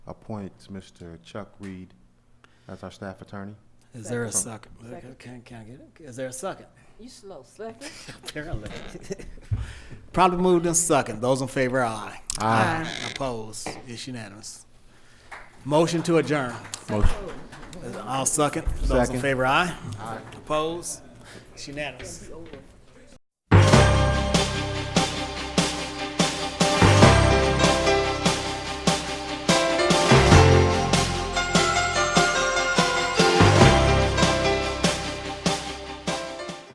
appoint Mr. Chuck Reed as our staff attorney. Is there a Second. second? Okay, Can, can I get it? Is there a second? You slow, second. Apparently. Probably moved in second. Those in favor, aye. Aye. Opposed? It's unanimous. Motion to adjourn. I'll second. Those in Second. favor, aye. Aye. Opposed? It's unanimous.